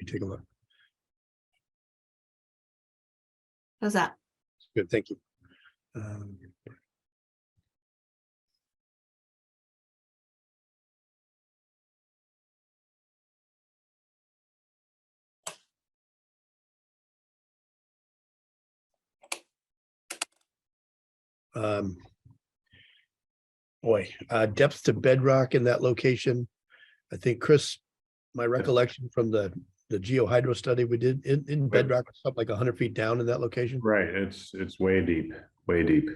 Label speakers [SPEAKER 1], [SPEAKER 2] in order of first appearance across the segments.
[SPEAKER 1] me take a look.
[SPEAKER 2] How's that?
[SPEAKER 1] Good, thank you. Um, um, Boy, uh, depth to bedrock in that location. I think Chris, my recollection from the, the geohydro study we did in, in bedrock, something like hundred feet down in that location.
[SPEAKER 3] Right, it's, it's way deep, way deep.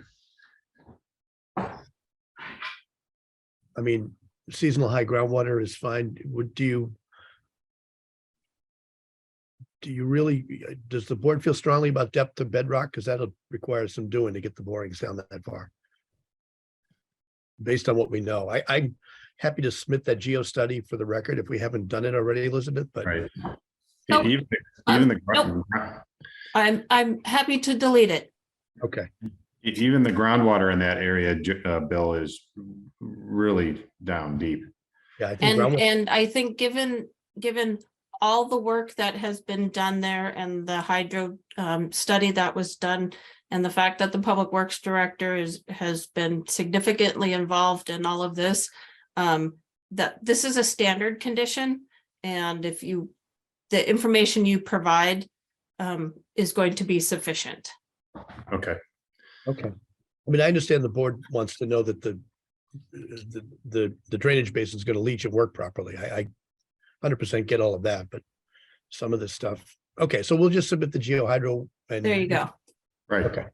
[SPEAKER 1] I mean, seasonal high groundwater is fine. Would, do you? Do you really, does the board feel strongly about depth of bedrock? Because that'll require some doing to get the borings down that far. Based on what we know, I, I'm happy to submit that geo study for the record if we haven't done it already, Elizabeth, but
[SPEAKER 3] Right.
[SPEAKER 2] No,
[SPEAKER 3] E- Even,
[SPEAKER 2] um,
[SPEAKER 3] even the, gro-
[SPEAKER 2] I'm, I'm happy to delete it.
[SPEAKER 1] okay,
[SPEAKER 3] e- even the groundwater in that area, Ju- uh, Bill, is really down deep.
[SPEAKER 1] yeah. I think
[SPEAKER 2] And,
[SPEAKER 1] groundwater-
[SPEAKER 2] and I think given, given all the work that has been done there and the hydro um, study that was done and the fact that the Public Works Director is, has been significantly involved in all of this, um, that this is a standard condition. And if you, the information you provide um, is going to be sufficient.
[SPEAKER 3] Okay,
[SPEAKER 1] Okay. I mean, I understand the board wants to know that the, the, the, the drainage basin is gonna leach and work properly. I, I hundred percent get all of that, but some of this stuff, okay, so we'll just submit the geohydro. and.
[SPEAKER 2] There you go.
[SPEAKER 3] right,
[SPEAKER 1] Okay,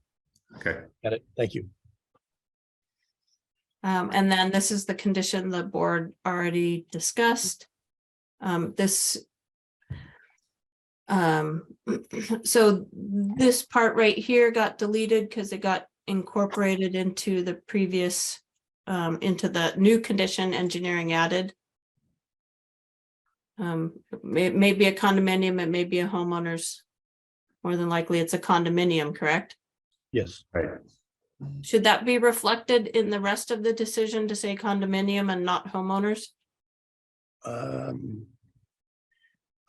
[SPEAKER 3] okay.
[SPEAKER 1] got it. Thank you.
[SPEAKER 2] Um, and then this is the condition the board already discussed. Um, this. Um, so this part right here got deleted because it got incorporated into the previous. Um, into the new condition engineering added. Um, it may, it may be a condominium, it may be a homeowner's. More than likely, it's a condominium, correct?
[SPEAKER 1] Yes,
[SPEAKER 3] Right,
[SPEAKER 2] Should that be reflected in the rest of the decision to say condominium and not homeowners?
[SPEAKER 1] um.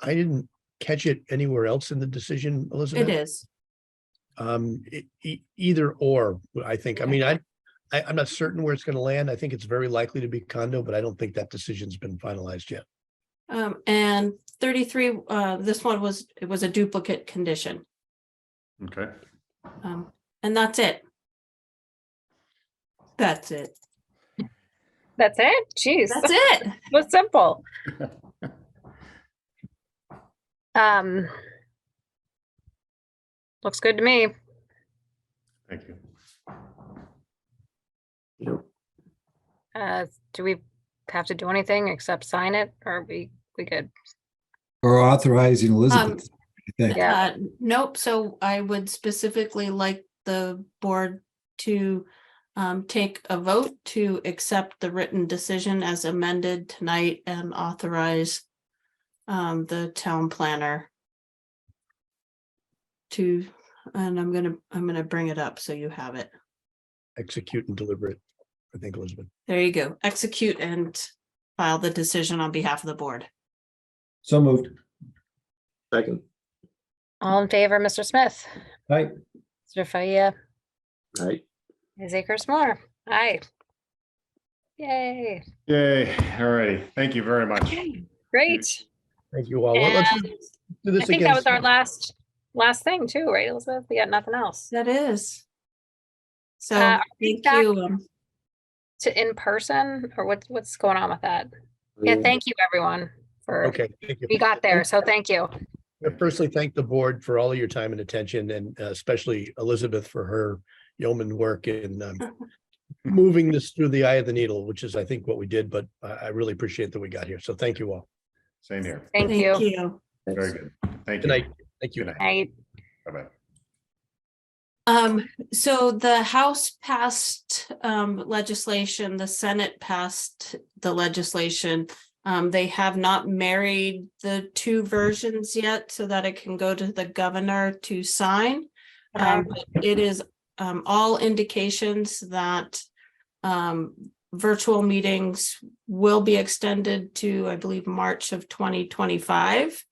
[SPEAKER 1] I didn't catch it anywhere else in the decision, Elizabeth.
[SPEAKER 2] It is.
[SPEAKER 1] Um, e- e- either or, I think. I
[SPEAKER 2] Okay.
[SPEAKER 1] mean, I, I, I'm not certain where it's gonna land. I think it's very likely to be condo, but I don't think that decision's been finalized yet.
[SPEAKER 2] Um, and thirty-three, uh, this one was, it was a duplicate condition.
[SPEAKER 3] okay.
[SPEAKER 2] Um, and that's it. That's it.
[SPEAKER 4] That's it? Jeez,
[SPEAKER 2] That's it.
[SPEAKER 4] was simple. Um. Looks good to me.
[SPEAKER 3] Thank you.
[SPEAKER 4] Uh, do we have to do anything except sign it or are we, we good?
[SPEAKER 5] Or authorizing Elizabeth. I think.
[SPEAKER 4] Yeah.
[SPEAKER 2] Uh, nope, so I would specifically like the board to um, take a vote to accept the written decision as amended tonight and authorize um, the town planner to, and I'm gonna, I'm gonna bring it up so you have it.
[SPEAKER 1] execute and deliver it. I think Elizabeth.
[SPEAKER 2] There you go. Execute and file the decision on behalf of the board.
[SPEAKER 5] So moved.
[SPEAKER 6] Second,
[SPEAKER 4] All in favor, Mr. Smith?
[SPEAKER 5] Aye.
[SPEAKER 4] Mr. Faya,
[SPEAKER 6] right?
[SPEAKER 4] Ms. Akers Moore? Aye. Yay,
[SPEAKER 3] Yay, all righty, thank you very much.
[SPEAKER 4] great.
[SPEAKER 1] Thank you all. Well,
[SPEAKER 4] And
[SPEAKER 1] Let's
[SPEAKER 4] I
[SPEAKER 1] do this
[SPEAKER 4] think that
[SPEAKER 1] again.
[SPEAKER 4] was our last, last thing too, right, Elizabeth? We got nothing else.
[SPEAKER 2] That is. So,
[SPEAKER 4] Uh,
[SPEAKER 2] thank
[SPEAKER 4] we
[SPEAKER 2] you.
[SPEAKER 4] back-
[SPEAKER 2] um,
[SPEAKER 4] To in person or what's, what's going on with that? Yeah, thank you everyone for,
[SPEAKER 1] Okay, thank you.
[SPEAKER 4] we got there, so thank you.
[SPEAKER 1] I Personally, thank the board for all of your time and attention and uh, especially Elizabeth for her yeoman work in um, moving this through the eye of the needle, which is, I think, what we did, but I, I really appreciate that we got here. So thank you all.
[SPEAKER 3] Same here,
[SPEAKER 4] Thank you.
[SPEAKER 3] very good. Thank
[SPEAKER 1] Good
[SPEAKER 3] you.
[SPEAKER 1] night. Thank you.
[SPEAKER 3] Good night,
[SPEAKER 4] Night.
[SPEAKER 3] bye-bye.
[SPEAKER 2] Um, so the House passed um legislation, the Senate passed the legislation. Um, they have not married the two versions yet so that it can go to the governor to sign. Um, but it is um all indications that um virtual meetings will be extended to, I believe, March of twenty twenty-five.